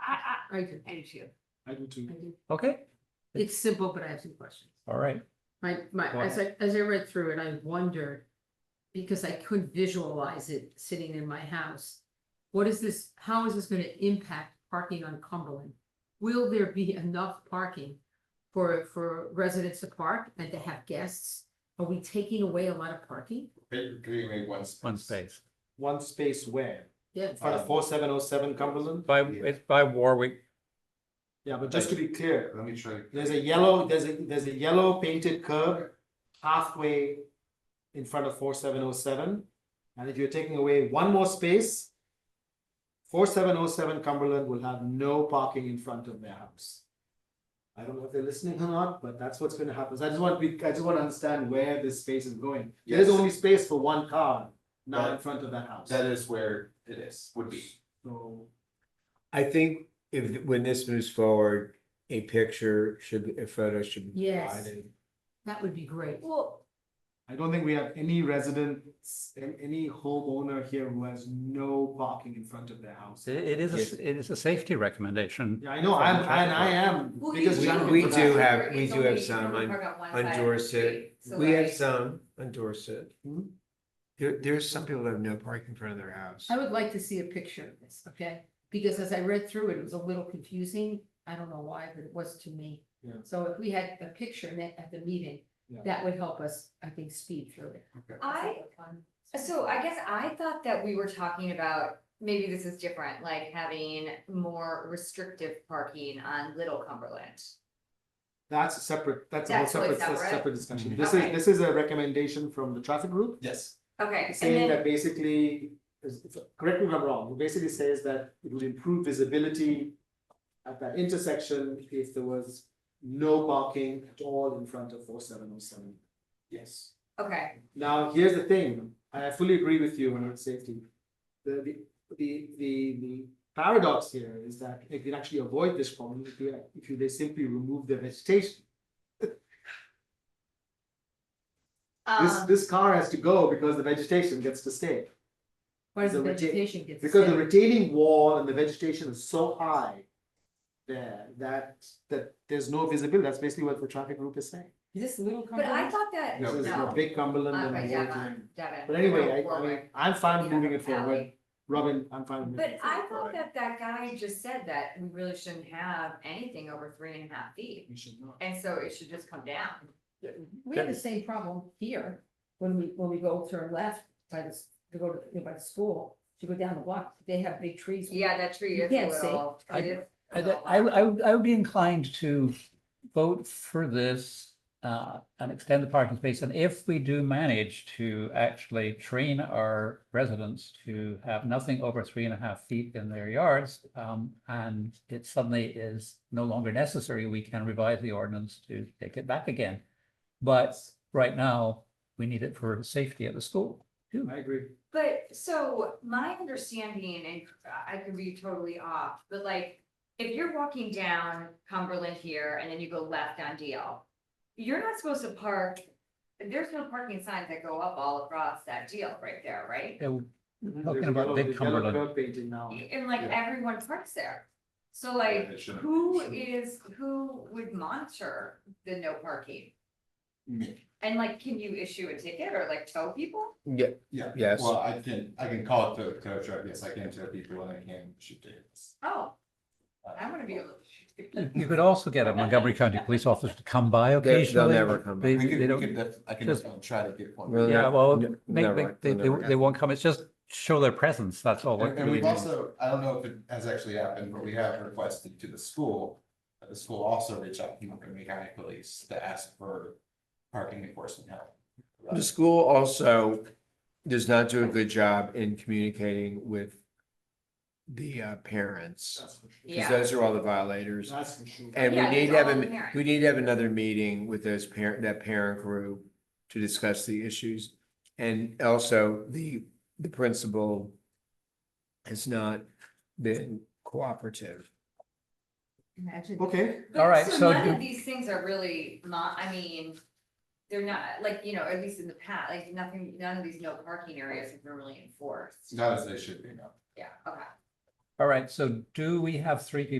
I, I do, thank you. I do too. I do. Okay, It's simple, but I have some questions. all right. My, my, Go as I, as I read through it, I wondered, because I couldn't visualize it sitting in my house. What is this, how is this gonna impact parking on Cumberland? Will there be enough parking for, for residents to park and to have guests? Are we taking away a lot of parking? Basically, maybe one space. Um, One space. One space where? Yeah, In front of four seven oh seven Cumberland? By, Yeah. it's by Warwick. Yeah, but just to be clear, Let me try. There's a yellow, there's a, there's a yellow painted curb halfway in front of four seven oh seven. And if you're taking away one more space, four seven oh seven Cumberland will have no parking in front of their house. I don't know if they're listening or not, but that's what's gonna happen. So I just want to be, I just want to understand where this space is going. There's Yes. only space for one car now in That- front of that house. That is where it is, would be. So, I think if, when this moves forward, a picture should, a photo should be Yes. provided. that would be great. Well, I don't think we have any residents, an- any homeowner here who has no parking in front of their house. It it is, a s- it is a safety recommendation. Yeah, I know, I'm, From and I traffic. am Well, biggest you- champion we for do that. have- we do have some on- on Dorset. We have some on Dorset. Hmm. There, there's some people that have no parking in front of their house. I would like to see a picture of this, okay? Because as I read through it, it was a little confusing. I don't know why, but it was to me. Yeah. So if we had a picture net at the meeting, Yeah. that would help us, I think, speed through it. I, uh, so I guess I thought that we were talking about, maybe this is different, like having more restrictive parking on Little Cumberland. That's a separate, that's a whole That's really separate, that's a separate. separate discussion. Mhm. This is, Okay. this is a recommendation from the traffic group. Yes. Okay, and Saying then, that basically, is- if- correct me if I'm wrong, it basically says that it would improve visibility at that intersection if there was no parking at all in front of four seven oh seven. Yes. okay, Now, here's the thing, I fully agree with you on safety. The, the, the, the, the paradox here is that they can actually avoid this problem if you, if you, they simply remove the vegetation. This, um, this car has to go because the vegetation gets to stay. Why does the the reta- vegetation get? to Because the stay? retaining wall and the vegetation is so high there, that, that there's no visibility, that's basically what the traffic group is saying. Is this little but company? I Ah, thought that, This no. is the big Cumberland not and by the Devon, Warwick. Devon. But anyway, I, I mean, Warwick, I'm you fine with know, moving it forward, Alley. Robin, I'm fine with moving But it forward. I thought that that guy just said that we really shouldn't have anything over three and a half feet, We should not. and so it should just come down. We have the same problem here, when we, when we go turn left by the, s- to go to, you know, by the school, to go down the block, they have big trees. Yeah, that tree You is a can't see. little. I- it is a I, little I, loud. I would, I would be inclined to vote for this, uh, and extend the parking space. And if we do manage to actually train our residents to have nothing over three and a half feet in their yards, um, and it suddenly is no longer necessary, we can revise the ordinance to take it back again. But right now, we need it for safety at the school, too. I agree. But so my understanding, and I could be totally off, but like, if you're walking down Cumberland here and then you go left on Deal. You're not supposed to park, there's no parking signs that go up all across that deal right there, right? It would- There's a about yellow- Big there's yellow Cumberland. curb Painting now. And like Yeah. everyone parks there. So Yeah, it like, shouldn't- who shouldn't. is, who would monitor the no parking? Me. And like, can you issue a ticket or like tow people? Yeah, Yeah. yes. Well, I can, I can call it to, to, drive, yes, I can tell people and I can shoot tickets. Oh, Uh, I wanna be able to. You you could also get a Montgomery County police officer to come by they'll occasionally. never come by. They- We could, they we don't- could, def- I can just- uh, try to get one. Well, Yeah, Yeah, well, n- they, never, they, they, never they happen. they won't come, it's just show their presence, that's all. it And and really we've means. also, I don't know if it has actually happened, but we have requested to the school. that The school also reach out to Montgomery County Police to ask for parking enforcement help. The school also does not do a good job in communicating with the uh, parents. That's for sure. Because Yeah. those are all the violators. That's for sure. And we Yeah, need it's to have, all a the parents. we need to have another meeting with those parent, that parent group to discuss the issues. And also the, the principal has not been cooperative. Imagine. Okay, But All right, so None do- of these things are really, mo- I mean, they're not, like, you know, at least in the past, like, nothing, none of these no parking areas have been really enforced. Not as they should be, no. Yeah, okay. All right, so do we have three people